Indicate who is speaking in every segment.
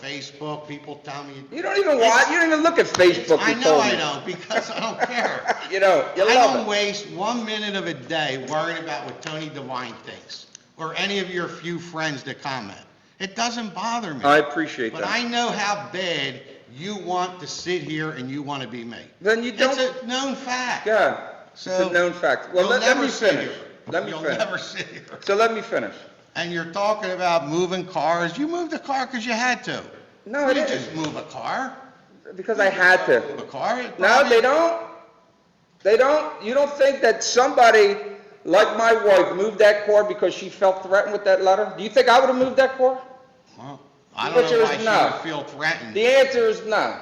Speaker 1: Facebook, people tell me.
Speaker 2: You don't even watch, you don't even look at Facebook,
Speaker 1: I
Speaker 2: you
Speaker 1: know
Speaker 2: told
Speaker 1: I
Speaker 2: me.
Speaker 1: don't, because I don't care.
Speaker 2: You know, you
Speaker 1: I don't
Speaker 2: love it.
Speaker 1: waste one minute of a day worrying about what Tony Devine thinks, or any of your few friends that comment. It doesn't bother me.
Speaker 2: I appreciate
Speaker 1: But I
Speaker 2: that.
Speaker 1: know how bad you want to sit here and you want to be me.
Speaker 2: Then you
Speaker 1: It's
Speaker 2: don't,
Speaker 1: a known fact.
Speaker 2: yeah, it's
Speaker 1: So
Speaker 2: a known fact. Well,
Speaker 1: You'll
Speaker 2: let let
Speaker 1: never
Speaker 2: me
Speaker 1: sit
Speaker 2: finish.
Speaker 1: here.
Speaker 2: Let me
Speaker 1: You'll never
Speaker 2: finish.
Speaker 1: sit here.
Speaker 2: So let me finish.
Speaker 1: And you're talking about moving cars. You moved a car because you had to.
Speaker 2: No,
Speaker 1: You
Speaker 2: it
Speaker 1: didn't just
Speaker 2: isn't,
Speaker 1: move a car.
Speaker 2: because I had to.
Speaker 1: Move a car. It
Speaker 2: No,
Speaker 1: probably-
Speaker 2: they don't. They don't. You don't think that somebody like my wife moved that car because she felt threatened with that letter? Do you think I would have moved that car?
Speaker 1: Well, I
Speaker 2: The
Speaker 1: don't
Speaker 2: answer
Speaker 1: know
Speaker 2: is
Speaker 1: why she
Speaker 2: no.
Speaker 1: would feel threatened.
Speaker 2: The answer is no.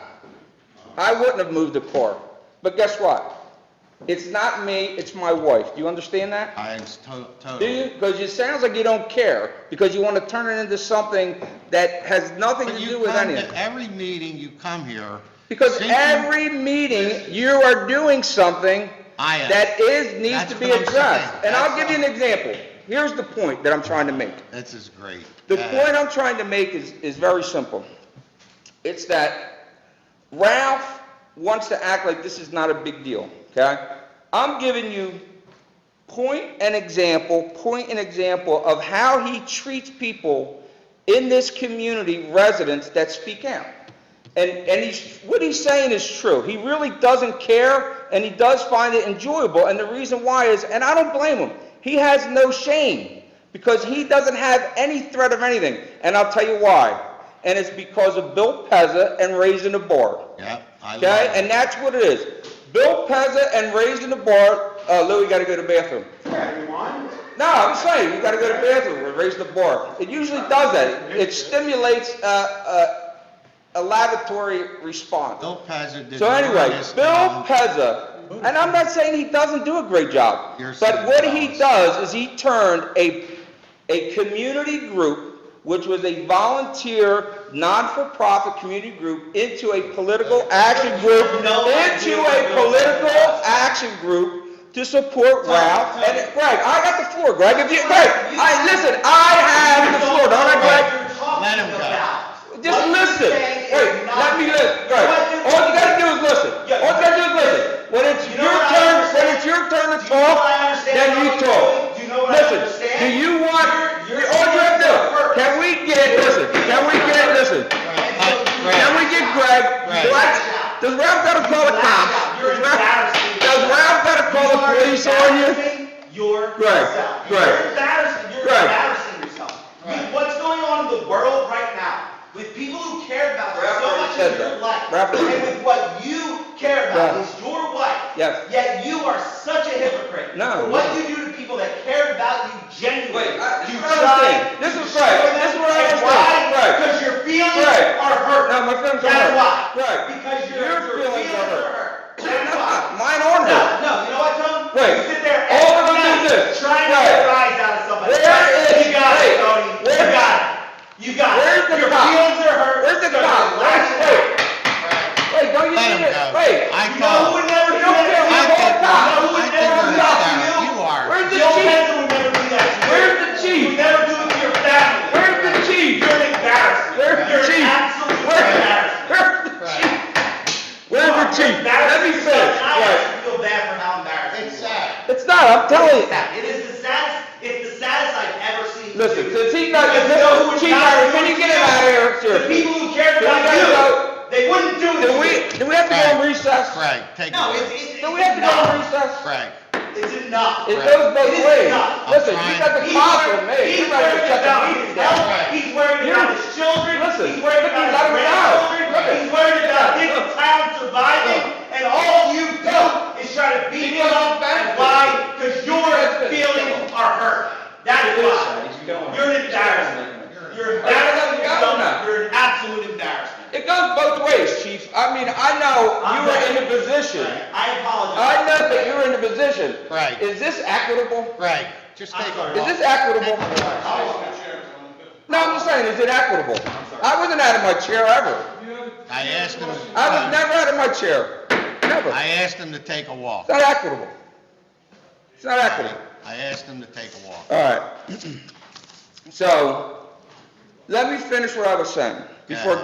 Speaker 2: I wouldn't have moved the car. But guess what? It's not me, it's my wife. Do you understand that?
Speaker 1: I am to-
Speaker 2: Do
Speaker 1: totally.
Speaker 2: you? Because it sounds like you don't care, because you want to turn it into something that has nothing to
Speaker 1: But
Speaker 2: do
Speaker 1: you
Speaker 2: with
Speaker 1: come
Speaker 2: anything.
Speaker 1: to every meeting, you come here.
Speaker 2: Because
Speaker 1: thinking-
Speaker 2: every meeting, you are doing something
Speaker 1: I am.
Speaker 2: that is, needs
Speaker 1: That's
Speaker 2: to be
Speaker 1: what I'm
Speaker 2: addressed.
Speaker 1: saying.
Speaker 2: And I'll
Speaker 1: That's
Speaker 2: give you an example. Here's the point that I'm trying to make.
Speaker 1: This is great.
Speaker 2: The
Speaker 1: Uh,
Speaker 2: point I'm trying to make is, is very simple. It's that Ralph wants to act like this is not a big deal, okay? I'm giving you point an example, point an example of how he treats people in this community, residents that speak out. And, and he's, what he's saying is true. He really doesn't care, and he does find it enjoyable, and the reason why is, and I don't blame him, he has no shame, because he doesn't have any threat of anything, and I'll tell you why. And it's because of Bill Pezza and raising the bar.
Speaker 1: Yeah, I love
Speaker 2: Okay,
Speaker 1: it.
Speaker 2: and that's what it is. Bill Pezza and raising the bar, uh, Lou, you gotta go to the bathroom. No, I'm saying, you gotta go to the bathroom, and raise the bar. It usually does that. It stimulates, uh, uh, a lavatory response.
Speaker 1: Bill Pezzer did.
Speaker 2: So
Speaker 1: the
Speaker 2: anyway,
Speaker 1: greatest
Speaker 2: Bill
Speaker 1: job.
Speaker 2: Pezza, and I'm not saying he doesn't do a great job,
Speaker 1: You're
Speaker 2: but
Speaker 1: saying
Speaker 2: what
Speaker 1: he
Speaker 2: he
Speaker 1: does.
Speaker 2: does is he turned a, a community group, which was a volunteer, non-for-profit community group, into a political action group,
Speaker 3: No idea
Speaker 2: into
Speaker 3: what
Speaker 2: a
Speaker 3: Bill
Speaker 2: political
Speaker 3: Pezza does.
Speaker 2: action group to support
Speaker 3: Tell-
Speaker 2: Ralph.
Speaker 3: tell-
Speaker 2: And Greg, I got the floor, Greg, if you, Greg,
Speaker 3: You-
Speaker 2: I, listen, I have the floor, don't I, Greg?
Speaker 1: Let him go.
Speaker 2: Just listen. Hey, let me listen. Right. All you gotta do is listen. All you gotta do is listen. When it's
Speaker 3: You know
Speaker 2: your
Speaker 3: what I
Speaker 2: turn, when
Speaker 3: understand?
Speaker 2: it's your turn to
Speaker 3: Do you know
Speaker 2: talk,
Speaker 3: what I understand
Speaker 2: then
Speaker 3: about
Speaker 2: you
Speaker 3: what you're
Speaker 2: talk.
Speaker 3: doing? Do you know what I
Speaker 2: Listen,
Speaker 3: understand?
Speaker 2: do you want,
Speaker 3: You're- you're
Speaker 2: all you have to do,
Speaker 3: doing work.
Speaker 2: can we get, listen, can we get, listen, can we get Greg,
Speaker 1: Greg.
Speaker 2: what? Does Ralph gotta call the cops?
Speaker 3: You're
Speaker 2: Does Ralph-
Speaker 3: embarrassing
Speaker 2: Does Ralph gotta call the police on you?
Speaker 3: Yourself.
Speaker 2: Right, right.
Speaker 3: You're embarrassing, you're
Speaker 2: Right.
Speaker 3: embarrassing yourself. With what's going on in the world right now, with people who care about
Speaker 2: Ralph
Speaker 3: so
Speaker 2: already
Speaker 3: much
Speaker 2: said
Speaker 3: of your
Speaker 2: that.
Speaker 3: life,
Speaker 2: Ralph
Speaker 3: and
Speaker 2: already-
Speaker 3: with what you care about
Speaker 2: Ralph.
Speaker 3: is your wife.
Speaker 2: Yes.
Speaker 3: Yet you are such a hypocrite.
Speaker 2: No.
Speaker 3: For what you do to people that care about you genuinely.
Speaker 2: Wait, I- this
Speaker 3: You
Speaker 2: is what I'm saying.
Speaker 3: try,
Speaker 2: This
Speaker 3: you
Speaker 2: is right.
Speaker 3: show them,
Speaker 2: This is what I
Speaker 3: and
Speaker 2: understand.
Speaker 3: why?
Speaker 2: Right.
Speaker 3: Because your feelings
Speaker 2: Right.
Speaker 3: are hurt.
Speaker 2: No, my feelings are hurt.
Speaker 3: That's why.
Speaker 2: Right.
Speaker 3: Because your,
Speaker 2: Your
Speaker 3: your
Speaker 2: feelings are
Speaker 3: feelings are
Speaker 2: hurt.
Speaker 3: hurt.
Speaker 2: They're
Speaker 3: That's why.
Speaker 2: not. Mine aren't.
Speaker 3: No, no, you know what, Tony?
Speaker 2: Wait.
Speaker 3: You sit there
Speaker 2: All
Speaker 3: every
Speaker 2: we're gonna do
Speaker 3: night
Speaker 2: is this.
Speaker 3: trying to
Speaker 2: Wait.
Speaker 3: get rise out of somebody.
Speaker 2: Where is-
Speaker 3: You got
Speaker 2: wait.
Speaker 3: it, Tony. You
Speaker 2: Where-
Speaker 3: got it. You got it.
Speaker 2: Where's the
Speaker 3: Your
Speaker 2: cop?
Speaker 3: feelings are hurt.
Speaker 2: Where's the
Speaker 3: They're
Speaker 2: cop?
Speaker 3: lashed
Speaker 2: Wait,
Speaker 3: out.
Speaker 2: Wait, don't you
Speaker 1: Let him
Speaker 2: need it?
Speaker 1: go.
Speaker 2: Wait.
Speaker 1: I
Speaker 3: You know who
Speaker 1: called.
Speaker 3: would never do
Speaker 2: You
Speaker 3: that?
Speaker 2: don't
Speaker 1: I
Speaker 3: to
Speaker 2: care.
Speaker 3: you?
Speaker 1: think,
Speaker 2: No,
Speaker 3: I would
Speaker 1: I think
Speaker 3: never
Speaker 1: you're
Speaker 3: do that to
Speaker 1: hysterical.
Speaker 3: you.
Speaker 1: You are.
Speaker 2: Where's the
Speaker 3: Joe
Speaker 2: chief?
Speaker 3: Benson would never do that to you.
Speaker 2: Where's the chief?
Speaker 3: Would never do it to your family.
Speaker 2: Where's the chief?
Speaker 3: You're an embarrassment.
Speaker 2: Where's the
Speaker 3: You're an
Speaker 2: chief?
Speaker 3: absolute embarrassment.
Speaker 2: Where's the chief? Where's the chief? Let me
Speaker 3: Embarrassing
Speaker 2: finish.
Speaker 3: yourself. I
Speaker 2: Right.
Speaker 3: actually feel bad for how embarrassing
Speaker 1: It's
Speaker 3: you are.
Speaker 1: sad.
Speaker 2: It's not, I'm telling you.
Speaker 3: It is the saddest, it's the saddest I've ever seen.
Speaker 2: Listen,
Speaker 3: you.
Speaker 2: since he's not,
Speaker 3: Because
Speaker 2: since
Speaker 3: no one
Speaker 2: chief,
Speaker 3: cares
Speaker 2: can you
Speaker 3: what
Speaker 2: get
Speaker 3: you
Speaker 2: him out of
Speaker 3: do.
Speaker 2: here?
Speaker 3: The
Speaker 2: Seriously.
Speaker 3: people who care
Speaker 2: Can
Speaker 3: about
Speaker 2: we
Speaker 3: you,
Speaker 2: go?
Speaker 3: they wouldn't do it.
Speaker 2: Do
Speaker 3: to you.
Speaker 2: we, do we have to go on recess?
Speaker 1: Craig, take
Speaker 3: No,
Speaker 1: it.
Speaker 3: it's, it's.
Speaker 2: Do we have to go on recess?
Speaker 1: Craig.
Speaker 3: It's enough.
Speaker 2: It
Speaker 3: It's enough.
Speaker 2: goes both
Speaker 3: It is
Speaker 2: ways.
Speaker 3: not.
Speaker 2: Listen, you
Speaker 1: I'm
Speaker 2: got the
Speaker 3: He's
Speaker 2: cops
Speaker 3: worried-
Speaker 2: on me.
Speaker 3: He's
Speaker 2: You might have
Speaker 3: worried
Speaker 2: to shut
Speaker 3: about
Speaker 2: the meeting
Speaker 3: his
Speaker 2: down.
Speaker 3: health, he's worried about
Speaker 2: You're-
Speaker 3: his children,
Speaker 2: listen,
Speaker 3: he's worried
Speaker 2: look,
Speaker 3: about
Speaker 2: he's
Speaker 3: his
Speaker 2: out of bounds. Look
Speaker 3: grandchildren,
Speaker 2: at-
Speaker 3: he's worried about his
Speaker 2: Look.
Speaker 3: town surviving, and all you do is try to beat him
Speaker 2: Because I'm
Speaker 3: up.
Speaker 2: back.
Speaker 3: Why? Because your
Speaker 2: Listen.
Speaker 3: feelings are hurt. That's why. You're an embarrassment. You're
Speaker 2: Let
Speaker 3: embarrassing
Speaker 2: him go now.
Speaker 3: yourself. You're an absolute embarrassment.
Speaker 2: It goes both ways, chief. I mean, I know you
Speaker 3: I'm
Speaker 2: were
Speaker 3: back.
Speaker 2: in a position.
Speaker 3: I apologize.
Speaker 2: I know that you were in a position.
Speaker 1: Right.
Speaker 2: Is this equitable?
Speaker 1: Craig, just
Speaker 3: I'm
Speaker 1: take
Speaker 3: sorry.
Speaker 1: it.
Speaker 2: Is this equitable? No, I'm just saying, is it equitable? I wasn't out of my chair ever.
Speaker 1: I asked him.
Speaker 2: I was never out of my chair. Never.
Speaker 1: I
Speaker 2: It's
Speaker 1: asked him to take a walk.
Speaker 2: not equitable. It's not equitable.
Speaker 1: I asked him to take a walk.
Speaker 2: All right. So, let me finish what I was saying before
Speaker 1: Yeah.